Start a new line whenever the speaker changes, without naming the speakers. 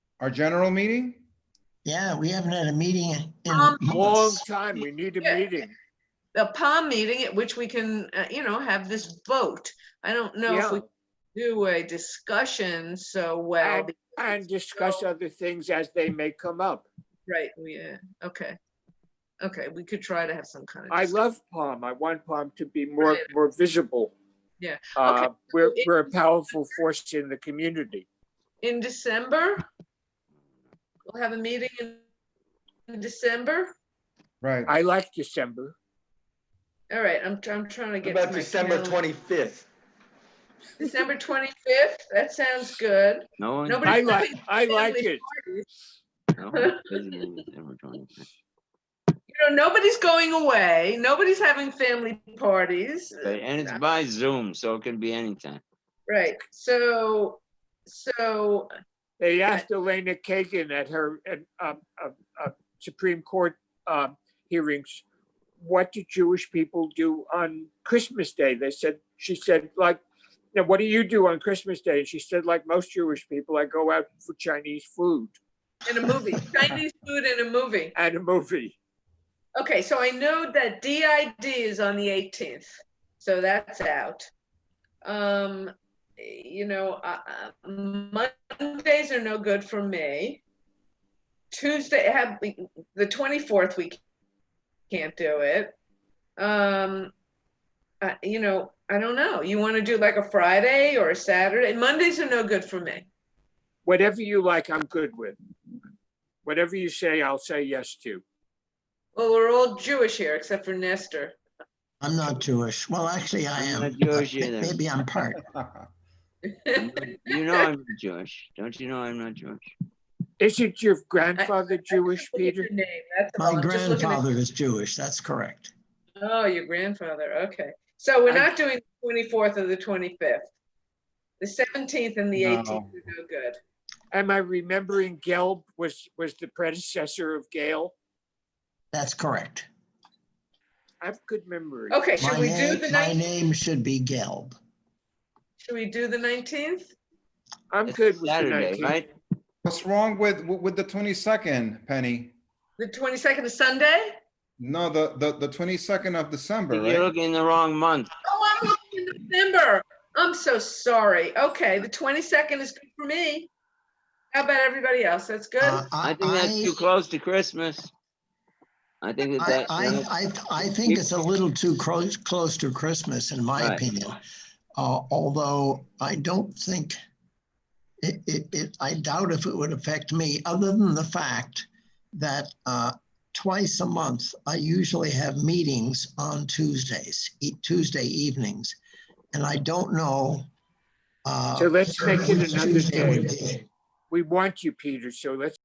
Our general meeting?
Yeah, we haven't had a meeting in
Um,
Long
months.
time, we need a
Yeah.
meeting.
the palm meeting at which we can, uh, you know, have this vote. I don't know if we do a discussion so well.
And- And discuss other things as they may come up.
Right, yeah, okay. Okay, we could try to have some kind of.
I
discuss-
love Palm. I want Palm to be more,
Brilliant.
more visible.
Yeah.
Uh,
Okay.
We're,
It-
we're a powerful force in the community.
In December? We'll have a meeting in in December?
Right.
I like December.
All right, I'm, I'm trying to
What
get.
About
my
December
calendar.
twenty-fifth.
December twenty-fifth, that sounds good.
No one.
Nobody-
I like, I like it.
no one's busy in December 25th.
You know, nobody's going away, nobody's having family parties.
Okay, And it's by Zoom, so it can be anytime.
Right, so, so,
They asked Elena Kagan at her, at, um, uh, uh, Supreme Court, um, hearings, what do Jewish people do on Christmas Day? They said, she said, like, now, what do you do on Christmas Day? And she said, like most Jewish people, I go out for Chinese food
in a movie, Chinese food in a movie.
and a movie.
Okay, so I know that DID is on the eighteenth, so that's out. Um, you know, uh, uh, Mondays are no good for me. Tuesday, have, we- the twenty-fourth, we can't do it. Um, uh, you know, I don't know, you wanna do like a Friday or a Saturday? Mondays are no good for me.
Whatever you like, I'm good with. Whatever you say, I'll say yes to.
Well, we're all Jewish here, except for Nestor.
I'm not Jewish. Well, actually, I
I'm
am.
not
but
Jewish either.
Maybe I'm part.
You know- You know I'm not Jewish. Don't you know I'm not Jewish?
Isn't your grandfather Jewish,
Look at
Peter?
your name, that's all.
My
I'm Oh, just looking at-
grandfather is Jewish, that's correct.
Oh, your grandfather, okay. So we're
I-
not doing the twenty-fourth or the twenty-fifth. The seventeenth and the eighteenth
No.
are no good.
Am I remembering Gelb was, was the predecessor of Gail?
That's correct.
I have good memory.
Okay, should
My
we do
name,
the
my
nineteenth?
name should be Gelb.
Should we do the nineteenth?
I'm
It's
good with the
Saturday,
19th.
right?
What's wrong with, with the 22nd, Penny?
The twenty-second is Sunday?
No, the, the, the 22nd of December,
You're
right?
looking in the wrong month.
Oh, I'm looking in December. I'm so sorry. Okay, the twenty-second is good for me. How about everybody else? That's good?
Uh,
I
I,
think that's too close to Christmas. I think that uh,
I,
that.
I, I, I think it's a little too close, close to Christmas, in my
Right.
opinion. Uh, although I don't think, it, it, it, I doubt if it would affect me, other than the fact that, uh, twice a month, I usually have meetings on Tuesdays, e- Tuesday evenings. And I don't know. uh,
So let's make it
which
another
Tuesday would
day.
be.
We want you, Peter, so let's